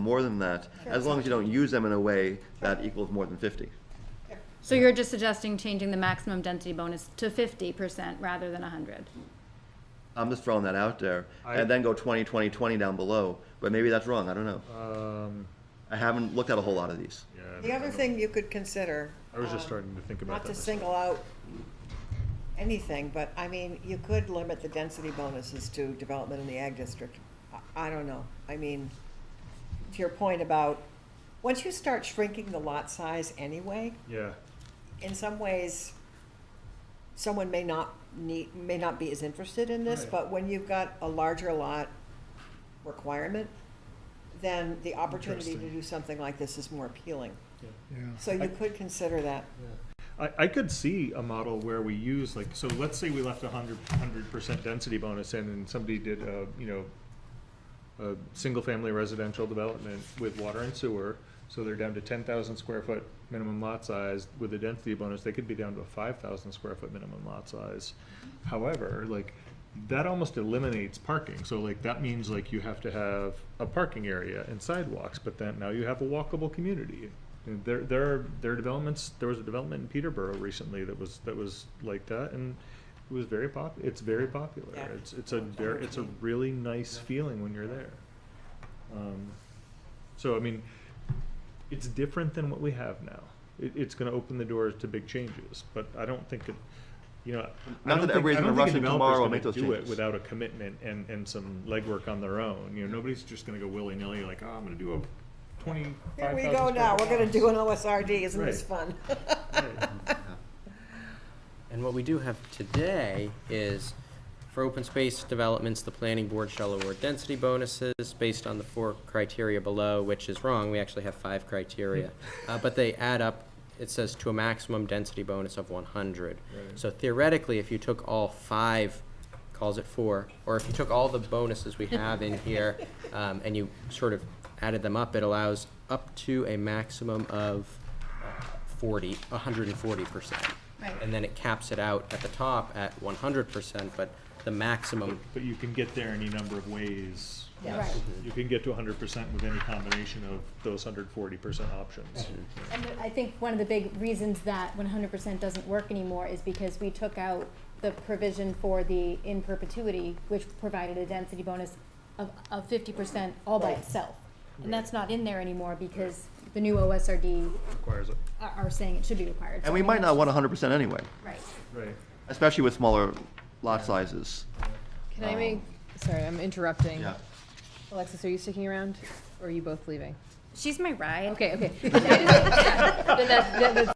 more than that, as long as you don't use them in a way that equals more than fifty. So you're just suggesting changing the maximum density bonus to fifty percent rather than hundred? I'm just throwing that out there, I- and then go 20, 20, 20 down below, but maybe that's wrong, I don't know. Um, I haven't looked at a whole lot of these. yeah. The other thing you could consider. I was just um, starting to think about Not that to myself. single out anything, but I mean, you could limit the density bonuses to development in the ag district. I- I don't know. I mean, to your point about, once you start shrinking the lot size anyway, Yeah, in some ways, someone may not need, may not be as interested in this, Right. but when you've got a larger lot requirement, then the opportunity to Interesting. do something like this is more appealing. yeah. So I- you could consider that. I, I could see a model where we use like, so let's say we left a hundred, hundred percent density bonus in and somebody did a, you know, a single-family residential development with water and sewer, so they're down to ten thousand square foot minimum lot size with a density bonus, they could be down to a five thousand square foot minimum lot size. However, like, that almost eliminates parking, so like, that means like you have to have a parking area and sidewalks, but then now you have a walkable community. And There, there are, there are developments, there was a development in Peterborough recently that was, that was like that, and it was very pop, it's very popular. Yeah. It's, it's a very, it's a really nice feeling when you're there. Um, so I mean, it's different than what we have now. It, it's going to open the doors to big changes, but I don't think it. You know, I Not don't that think, everybody's I gonna don't think a rush in developer's tomorrow and gonna make those do it changes. without a commitment and, and some legwork on their own. You know, nobody's just going to go willy nilly like, oh, I'm going to do a twenty. Here we go now, we're gonna do an OSRD, isn't this fun? And what we do have today is, for open space developments, the planning board shall award density bonuses based on the four criteria below, which is wrong, we actually have five criteria. Uh, but they add up, it says to a maximum density bonus of one hundred. Right. So theoretically, if you took all five, calls it four, or if you took all the bonuses we have in here, um, and you sort of added them up, it allows up to a maximum of uh, forty, hundred and forty percent. Right. And then it caps it out at the top at one hundred percent, but the maximum, But you can get there any number of ways. Yeah. Right. You can get to 100% with any combination of those 140% options. And I think one of the big reasons that one hundred percent doesn't work anymore is because we took out the provision for the in perpetuity, which provided a density bonus of, of fifty percent all by Right. itself. And that's not in there anymore because the new OSRD Requires it. Oh. are, are saying it should be required. So, And I we mean, might not that's- want hundred percent anyway, Right. Right. especially with smaller lot sizes. Can I Um, make, sorry, I'm interrupting. Yeah. Alexis, are you sticking around or are you both leaving? She's my ride. Okay, okay. Then that- that- that's-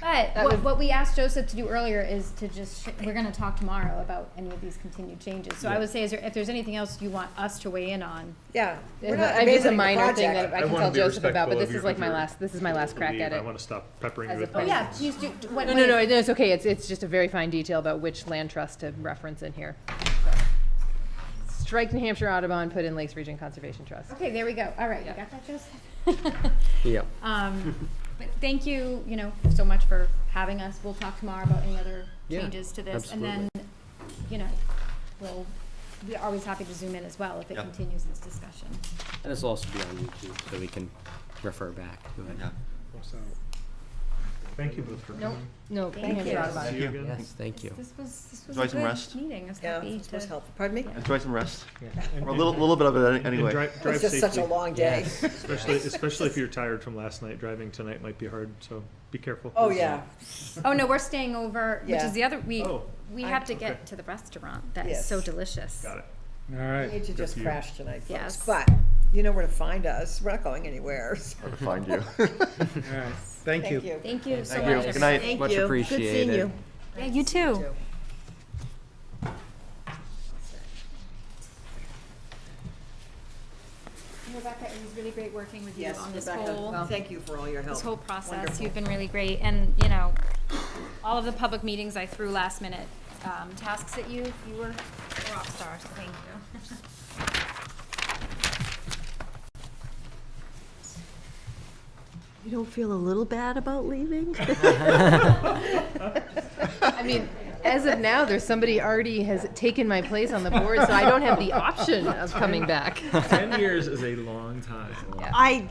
But That what, was- what we asked Joseph to do earlier is to just, sh- we're gonna talk tomorrow about any of these continued changes. So I would say, is there, if there's anything else you want us to weigh in on, Yeah. we're not I mean, It's a abandoning the minor thing project. that I can wanna tell be Joseph about, respectful but of this your- is like my of your- last, this is my last crack Leave. at I it. want to stop peppering as you with opposed- questions. Oh, Yeah, please do, what, No, no, no, no, it's okay. It's, it's just a very fine detail about which land trust to reference in here. Strike New Hampshire Audubon, put in Lakes Region Conservation Trust. okay, there we go, all right, you Yeah. got that, Joseph? yeah. Um, but thank you, you know, so much for having us, we'll talk tomorrow about any other Yeah, changes to this, and then, you know, we'll, we're always happy to zoom in as well if it Yeah. continues this discussion. And this will also be on YouTube, so we can refer back to it. Yeah. Thank you both for Oh, Nope, coming. no, New Thank Hampshire you. Audubon. See you again. Yes, thank you. This was, this was Enjoy a some rest. good meeting, I was Yeah, happy this was to. helpful. Pardon me? Enjoy some rest, And- or a little, little bit of it any- and anyway. Drive, drive It's just such a safely. long day. Especially, especially if you're tired from last night, driving tonight might be hard, so be careful. Oh, yeah. Oh, no, we're staying over, which Yeah. is the other, we, Oh. we I- have to okay. get to the restaurant that is Yes. so delicious. Got it. We need to Good just for you. crash tonight, folks. Yes. But you know where to find us. We're not going anywhere. so Hard to Find you. Thank you. Thank you so Thank you. much. Good night. Thank Much you. Good seeing appreciated. you. Yeah, you too. Rebecca, it was really great working with you Yes, on this whole Rebecca, thank you for all your help. this whole process. Wonderful. You've been really great, and, you know, all of the public meetings I threw last minute um, tasks at you, you were a rock star, so thank you. You don't feel a little bad about leaving? I mean, as of now, there's somebody already has taken my place on the board, so I don't have the option of coming back. Ten years is a long time. Yeah. I